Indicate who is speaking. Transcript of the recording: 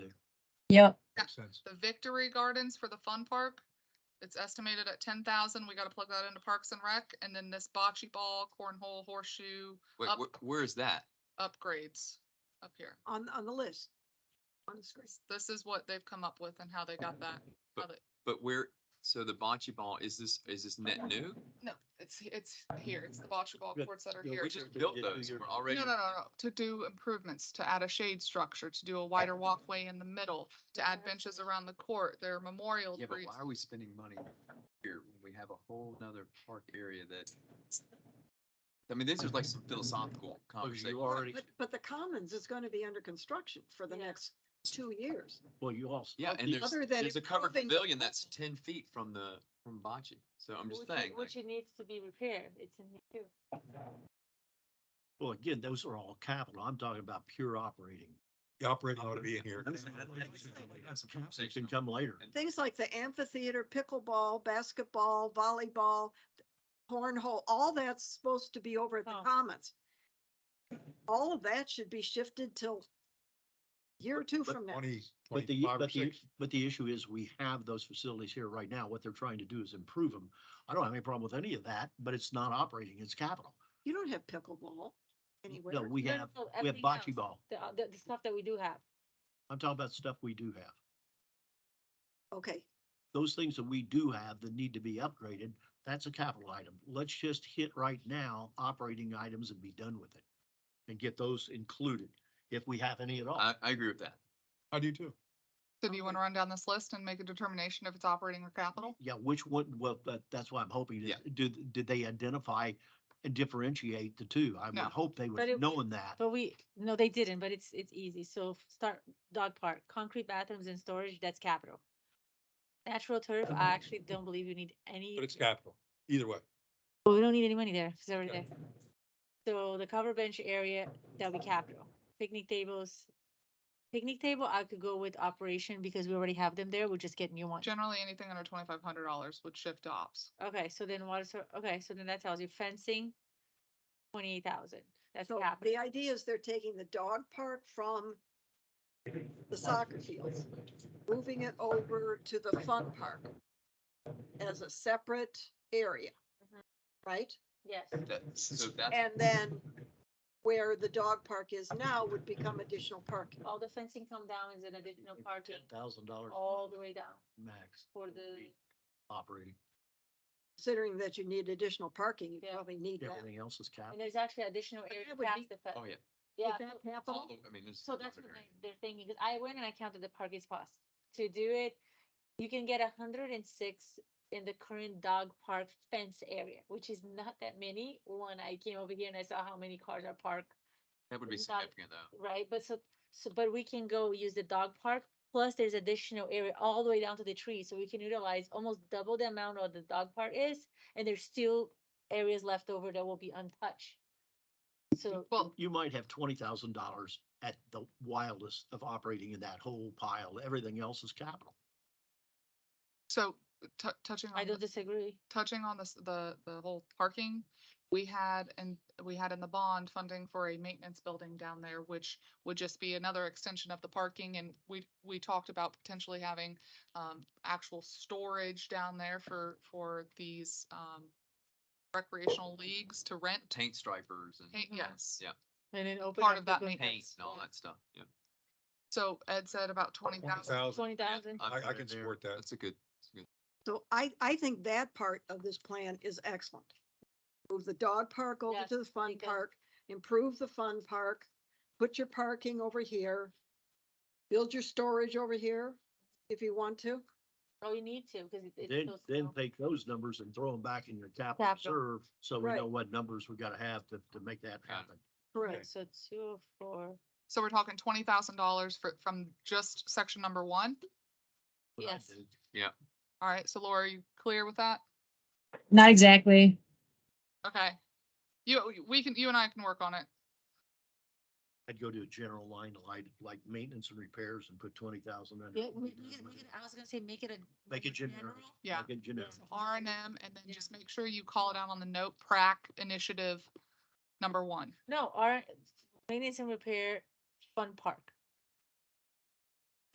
Speaker 1: Yep.
Speaker 2: Makes sense.
Speaker 3: The Victory Gardens for the fun park, it's estimated at ten thousand. We gotta plug that into Parks and Rec. And then this bocce ball, cornhole, horseshoe
Speaker 4: Wait,
Speaker 3: Up.
Speaker 4: wh- where is that?
Speaker 3: upgrades up here.
Speaker 5: on, on the list. On the screen.
Speaker 3: This is what they've come up with and how they got that. how they-
Speaker 4: But where, so the bocce ball, is this, is this net new?
Speaker 3: No, it's, it's here. It's the bocce ball
Speaker 6: Yeah,
Speaker 3: courts that are
Speaker 6: yeah,
Speaker 3: here.
Speaker 4: We
Speaker 6: Sure,
Speaker 3: to-
Speaker 6: sure,
Speaker 4: just built
Speaker 6: yeah,
Speaker 4: those,
Speaker 6: you're-
Speaker 4: and we're already.
Speaker 3: No, no, no, no, to do improvements, to add a shade structure, to do a wider walkway in the middle, to add benches around the court, there are memorial
Speaker 4: Yeah, but
Speaker 3: trees.
Speaker 4: why are we spending money here when we have a whole nother park area that? I mean, these are like some philosophical
Speaker 6: Oh,
Speaker 4: conversation.
Speaker 6: you already,
Speaker 5: But, but the Commons is going to be under construction for the
Speaker 1: Yeah.
Speaker 5: next two years.
Speaker 6: well, you also. oh,
Speaker 4: Yeah, and there's,
Speaker 5: Other than
Speaker 4: there's a covered
Speaker 5: improving the
Speaker 4: pavilion that's ten feet from the, from bocce, so I'm just
Speaker 1: Which it-
Speaker 4: saying. like,
Speaker 1: Which it needs to be repaired, it's in here too.
Speaker 6: Well, again, those are all capital. I'm talking about pure operating.
Speaker 2: The operating ought to be in here.
Speaker 6: They can come later.
Speaker 5: Things like the amphitheater, pickleball, basketball, volleyball, cornhole, all that's supposed to be over at the
Speaker 1: Oh.
Speaker 5: Commons. All of that should be shifted till year or two from now.
Speaker 2: Twenty,
Speaker 6: But the,
Speaker 2: twenty-five or
Speaker 6: but the,
Speaker 2: six.
Speaker 6: but the issue is we have those facilities here right now. What they're trying to do is improve them. I don't have any problem with any of that, but it's not operating. It's capital.
Speaker 5: You don't have pickleball anywhere.
Speaker 6: No, we
Speaker 1: No, no,
Speaker 6: have,
Speaker 1: no,
Speaker 6: we have
Speaker 1: everything
Speaker 6: bocce
Speaker 1: else.
Speaker 6: ball.
Speaker 1: The, uh, the, the stuff that we do have.
Speaker 6: I'm talking about stuff we do have.
Speaker 5: Okay,
Speaker 6: Those things that we do have that need to be upgraded, that's a capital item. Let's just hit right now operating items and be done with it. And get those included if we have any at all.
Speaker 4: I, I agree with that.
Speaker 2: I do too.
Speaker 3: So do you wanna run down this list and make a determination if it's operating or capital?
Speaker 6: Yeah, which one, well, that, that's why I'm hoping,
Speaker 4: Yeah.
Speaker 6: is, did, did they identify and differentiate the two? I would
Speaker 3: No.
Speaker 6: hope they
Speaker 1: But
Speaker 6: would,
Speaker 1: it-
Speaker 6: knowing that.
Speaker 1: But we, no, they didn't, but it's, it's easy. So start dog park, concrete bathrooms and storage, that's capital. Natural turf, I actually don't believe you need any,
Speaker 2: But it's capital, either way.
Speaker 1: well, we don't need any money there, it's already
Speaker 2: Okay.
Speaker 1: there. So the cover bench area, that'll be capital. Picnic tables. Picnic table, I could go with operation because we already have them there. We'll just get new ones.
Speaker 3: Generally, anything under twenty-five hundred dollars would shift to ops.
Speaker 1: Okay, so then what is, her- okay, so then that tells you fencing, twenty-eight thousand, that's
Speaker 5: so
Speaker 1: capital.
Speaker 5: the idea is they're taking the dog park from the soccer fields, moving it over to the fun park as a separate area,
Speaker 1: Mhm.
Speaker 5: right?
Speaker 1: Yes.
Speaker 4: That, so that's,
Speaker 5: And then where the dog park is now would become additional parking.
Speaker 1: All the fencing come down is an additional parking,
Speaker 6: Ten thousand dollars
Speaker 1: all the way down
Speaker 6: max
Speaker 1: for the,
Speaker 6: operating,
Speaker 5: Considering that you need additional parking, you
Speaker 1: Yeah.
Speaker 5: probably need that.
Speaker 6: everything else is
Speaker 1: and
Speaker 6: capital.
Speaker 1: there's actually additional area
Speaker 5: that would be-
Speaker 1: past the
Speaker 4: oh,
Speaker 1: fence.
Speaker 4: yeah.
Speaker 1: Yeah,
Speaker 5: Is that
Speaker 4: all
Speaker 5: capital?
Speaker 4: the- I mean, this. is
Speaker 1: so
Speaker 4: a
Speaker 1: that's what
Speaker 4: covered area.
Speaker 1: they- they're thinking, because I went and I counted the parking spots. To do it, you can get a hundred and six in the current dog park fence area, which is not that many. When I came over here and I saw how many cars are parked
Speaker 4: That would be
Speaker 1: it's not-
Speaker 4: significant though.
Speaker 1: Right, but so, so, but we can go use the dog park, plus there's additional area all the way down to the tree, so we can utilize almost double the amount of the dog park is, and there's still areas left over that will be untouched. So,
Speaker 3: Well,
Speaker 6: You might have twenty thousand dollars at the wildest of operating in that whole pile. Everything else is capital.
Speaker 3: so tou- touching on.
Speaker 1: I
Speaker 3: the-
Speaker 1: don't disagree.
Speaker 3: touching on this, the, the whole parking, we had, and we had in the bond funding for a maintenance building down there, which would just be another extension of the parking, and we, we talked about potentially having, um, actual storage down there for, for these, um, recreational leagues to rent.
Speaker 4: Taint stripers and
Speaker 3: Hey,
Speaker 1: Mhm.
Speaker 3: Yes.
Speaker 4: Yeah.
Speaker 1: And then open.
Speaker 3: Part of that
Speaker 4: paint
Speaker 3: maintenance.
Speaker 4: and all that stuff, yeah.
Speaker 3: So Ed said about twenty thousand.
Speaker 2: Thousand.
Speaker 1: Twenty thousand,
Speaker 2: I,
Speaker 4: I'm-
Speaker 2: I can support that.
Speaker 4: That's a good, that's a good.
Speaker 5: So I, I think that part of this plan is excellent. Move the dog park over
Speaker 1: Yes,
Speaker 5: to the fun
Speaker 1: because-
Speaker 5: park, improve the fun park, put your parking over here, build your storage over here if you want to.
Speaker 1: oh, you need to, because it's.
Speaker 6: Then,
Speaker 1: so
Speaker 6: then
Speaker 1: small.
Speaker 6: take those numbers and throw them back in your capital
Speaker 1: Capital.
Speaker 6: reserve, so we
Speaker 5: Right.
Speaker 6: know what numbers we gotta have to, to make that happen.
Speaker 1: Okay, So two, four,
Speaker 3: So we're talking twenty thousand dollars for, from just section number one.
Speaker 6: What I
Speaker 1: Yes.
Speaker 6: did.
Speaker 3: All right, so Laura, are you clear with that?
Speaker 1: Not
Speaker 3: exactly. Okay. You, we can, you and I can work on it.
Speaker 6: I'd go to a general line like, like maintenance and repairs and put twenty thousand under.
Speaker 1: yeah, make it, make it, I was gonna say, make it a.
Speaker 6: Make it
Speaker 1: number
Speaker 6: generic.
Speaker 3: Yeah.
Speaker 6: Like a generic.
Speaker 3: R and M, and then
Speaker 1: Yeah.
Speaker 3: just make sure you call it out on the note, PrAC initiative number one.
Speaker 1: No, our maintenance and repair fun park.